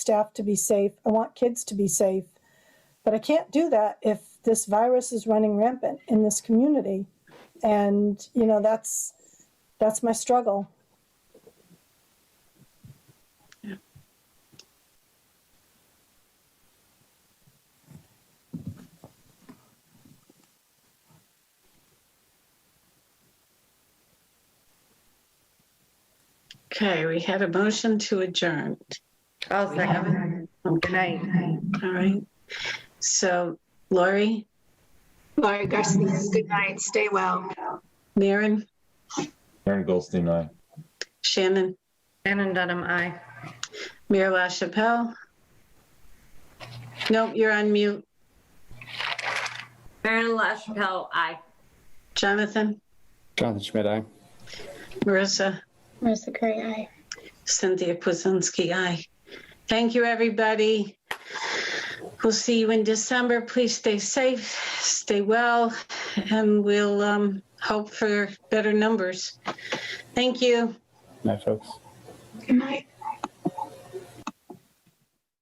staff to be safe. I want kids to be safe. But I can't do that if this virus is running rampant in this community. And, you know, that's, that's my struggle. Okay, we had a motion to adjourn, I'll second. Good night. all right? So Lori, Laurie Garcia, good night. Stay well. Maren, Aaron Goldstein, aye. Shannon, Shannon Dunham, aye. Mayor LaChapelle. Nope, you're on mute. Marilyn LaChapelle, aye. Jonathan, Jonathan Schmidt, aye. Marissa, Marissa Curry, aye. Cynthia Kuzinski, aye. Thank you, everybody. We'll see you in December. Please stay safe, stay well, and we'll um, hope for better numbers. Thank you. Night, folks. Good night.